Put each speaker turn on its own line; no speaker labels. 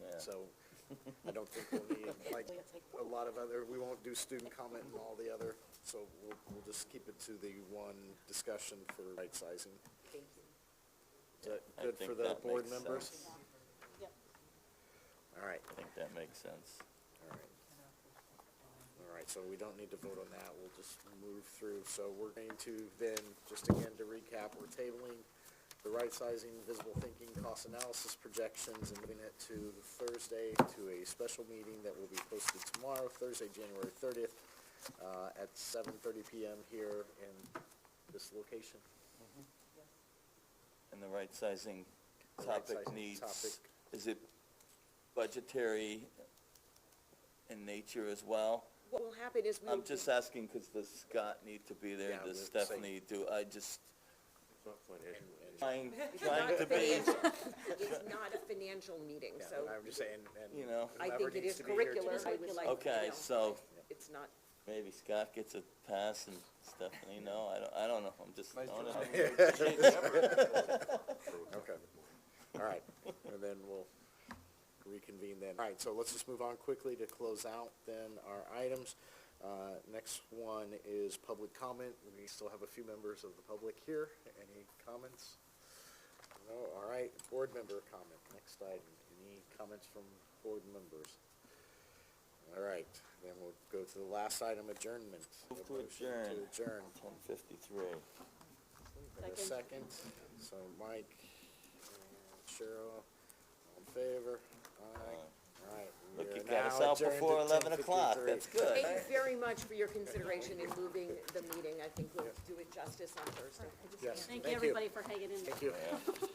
So I don't think we'll need, like,
It's like-
a lot of other, we won't do student comment and all the other, so we'll, we'll just keep it to the one discussion for right sizing.
Thank you.
Is that
I
good for
think
the
that
board
makes
members?
sense.
Yep.
All right,
I think that makes sense.
all right. All right, so we don't need to vote on that, we'll just move through. So we're going to then, just again to recap, we're tabling the right sizing, visible thinking, cost analysis projections, and moving it to Thursday to a special meeting that will be posted tomorrow, Thursday, January thirtieth, uh, at seven thirty PM here in this location.
And the right sizing
The right
topic
sizing
needs,
topic.
is it budgetary in nature as well?
What will happen is we'll.
I'm just asking because does Scott need to be there,
Yeah,
does
we'll see.
Stephanie do, I just
It's not financial.
trying,
It's
trying
not
to
a
be,
financial- It's not a financial meeting,
Yeah,
so
I'm just saying, and.
You know.
I
whoever
think it
needs
is
to be here to
curricular.
do
I
it.
would like, you
okay,
know,
so
It's not,
maybe Scott gets a pass and Stephanie, no, I don't, I don't know, I'm just, I don't know.
Okay, all right, and then we'll reconvene then. All right, so let's just move on quickly to close out then our items. Uh, Next one is public comment. We still have a few members of the public here. Any comments? No, all right, board member comment, next item. Any comments from board members? All right, then we'll go to the last item, adjournment.
Move to
A motion
adjourn.
To adjourn.
Ten fifty-three.
And a second, so Mike, and Cheryl, all in favor? Aye. All right. we
Look,
are
you got us
now
out
adjourned
before
at
eleven o'clock,
10:53.
that's good.
thank you very much for your consideration in moving the meeting. I think we'll do it justice on Thursday.
Yes,
Thank
thank
you,
you.
everybody, for hanging in there.
Thank you.
Yeah.